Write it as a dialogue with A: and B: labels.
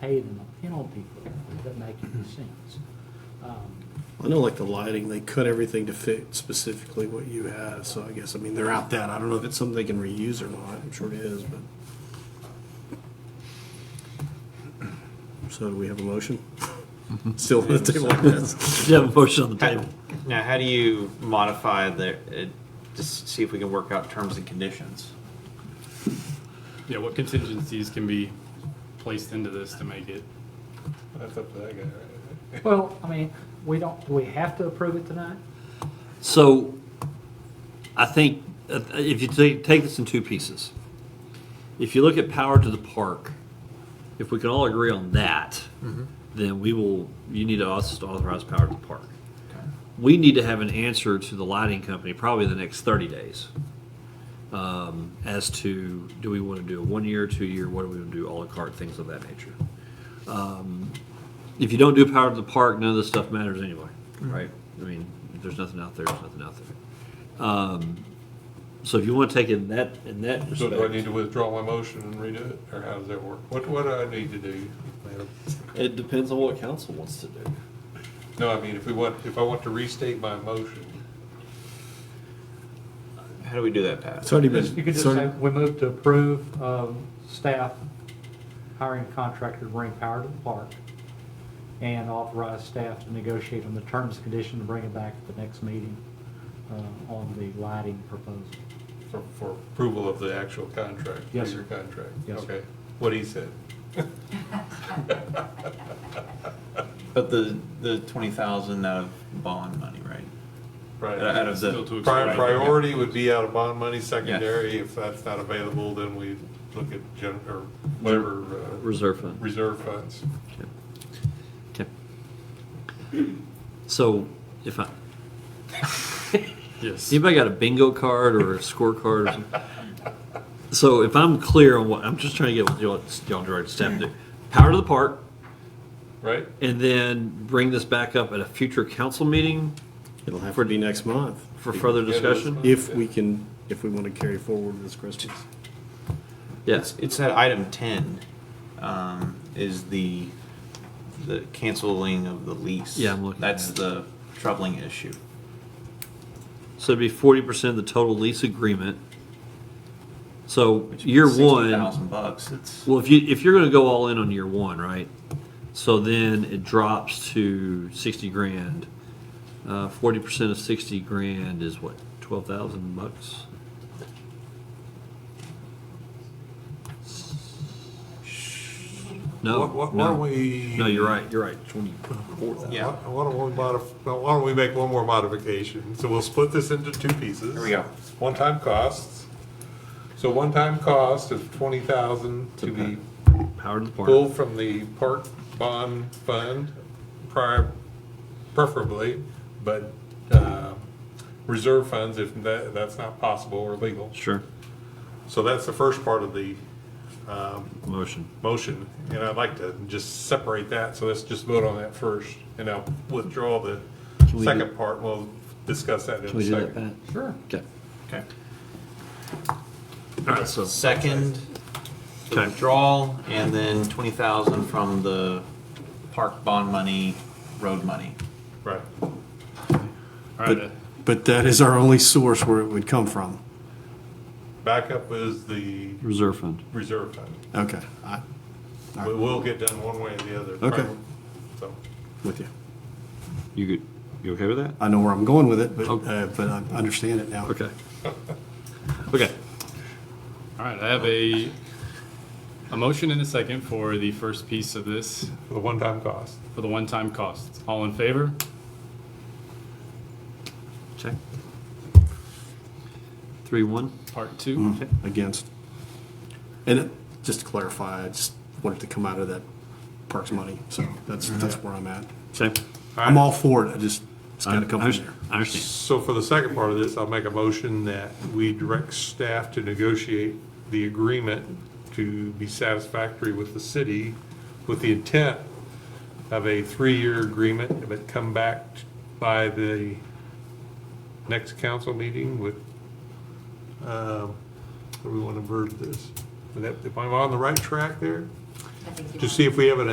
A: pay them a penalty for it doesn't make any sense. Um,
B: I know like the lighting, they cut everything to fit specifically what you had, so I guess, I mean, they're out that, I don't know if it's something they can reuse or not, I'm sure it is, but. So do we have a motion?
C: Mm-hmm.
B: Still on the table like this?
C: You have a motion on the table.
D: Now, how do you modify the, it- just see if we can work out terms and conditions?
E: Yeah, what contingencies can be placed into this to make it?
F: That's up to that guy, right?
A: Well, I mean, we don't, do we have to approve it tonight?
C: So I think uh, if you take, take this in two pieces, if you look at power to the park, if we can all agree on that, then we will, you need to also authorize power to the park. We need to have an answer to the lighting company probably the next 30 days um, as to do we want to do a one year, two year, what do we want to do, a la carte, things of that nature. Um, if you don't do power to the park, none of this stuff matters anyway, right? I mean, if there's nothing out there, there's nothing out there. Um, so if you want to take it in that, in that
F: So do I need
C: respect,
F: to withdraw my motion and redo it, or how does that work? What, what do I need to do? ma'am?
C: it depends on what council wants to do.
F: No, I mean, if we want, if I want to restate my motion,
D: How do we do that, Pat?
B: It's already been,
A: You could just
B: it's
A: say,
B: already-
A: we move to approve of staff hiring a contractor to bring power to the park and authorize staff to negotiate on the terms and conditions and bring it back at the next meeting uh, on the lighting proposal.
F: for, for approval of the actual contract?
A: Yes,
F: Your
A: sir.
F: contract?
A: Yes, sir.
F: Okay, what he said.
D: But the, the twenty thousand out of bond money, right? Out
F: Right.
D: of the.
E: Still too
F: Pri-
E: Right.
F: Priority would be out of bond money, secondary, if that's not available, then we look at gen, or whatever, uh,
C: Reserve fund.
F: reserve funds.
C: Okay. Okay. So if I,
E: Yes.
C: anybody got a bingo card or a scorecard or something? So if I'm clear on what, I'm just trying to get what y'all, y'all direct staff to do. Power to the park,
F: Right?
C: and then bring this back up at a future council meeting
B: it'll have to be next month,
C: for further
F: Yeah, that's
C: discussion?
F: fine.
B: if we can, if we want to carry forward this Christmas.
C: Yes.
D: It's that item ten, um, is the, the canceling of the lease.
C: Yeah, I'm looking
D: That's
C: at it.
D: the troubling issue.
C: So it'd be forty percent of the total lease agreement. So year
D: Sixty
C: one,
D: thousand bucks, it's,
C: well, if you, if you're gonna go all in on year one, right? So then it drops to sixty grand. Uh, forty percent of sixty grand is what, twelve thousand bucks? No,
F: Why- why- Why don't
C: no,
F: we?
C: no, you're right, you're right, twenty-four thousand.
D: yeah,
F: Why why don't we modif, why don't we make one more modification? So we'll split this into two pieces.
D: There we go.
F: One-time costs. So one-time cost of twenty thousand to be
C: Power to the park.
F: pulled from the park bond fund, prior, preferably, but, uh, reserve funds if that, that's not possible or legal.
C: Sure,
F: So that's the first part of the, um,
C: motion.
F: motion, and I'd like to just separate that, so let's just vote on that first, and I'll withdraw the
C: Can we do-
F: second part, and we'll discuss that in a
C: Can
F: second.
C: we do that, Pat?
A: Sure.
C: Okay.
D: okay.
C: All right, so
D: Second, the
C: Okay.
D: withdrawal, and then twenty thousand from the park bond money, road money.
F: Right,
E: All right, uh,
B: But, but that is our only source where it would come from.
F: backup is the
C: reserve fund.
F: reserve fund,
B: Okay, I,
F: we will get done one way or the other.
B: Okay.
F: So,
B: with you.
C: You good? You okay with that?
B: I know where I'm going with it, but,
C: Okay.
B: uh, but I understand it now.
C: Okay. Okay.
E: all right, I have a, a motion and a second for the first piece of this,
F: the one-time cost,
E: for the one-time costs. All in favor?
C: Check. Three one.
E: Part two?
B: Mm, Against. And it- just to clarify, I just wanted to come out of that parks money, so that's, that's where I'm at.
C: Check.
B: I'm all for it, I just, it's gotta come from there.
C: I understand.
F: so for the second part of this, I'll make a motion that we direct staff to negotiate the agreement to be satisfactory with the city, with the intent of a three-year agreement, but come back by the next council meeting with, um, how do we want to word this? Would that- Am I on the right track there?
G: I think you
F: To
G: are.
F: see if we have an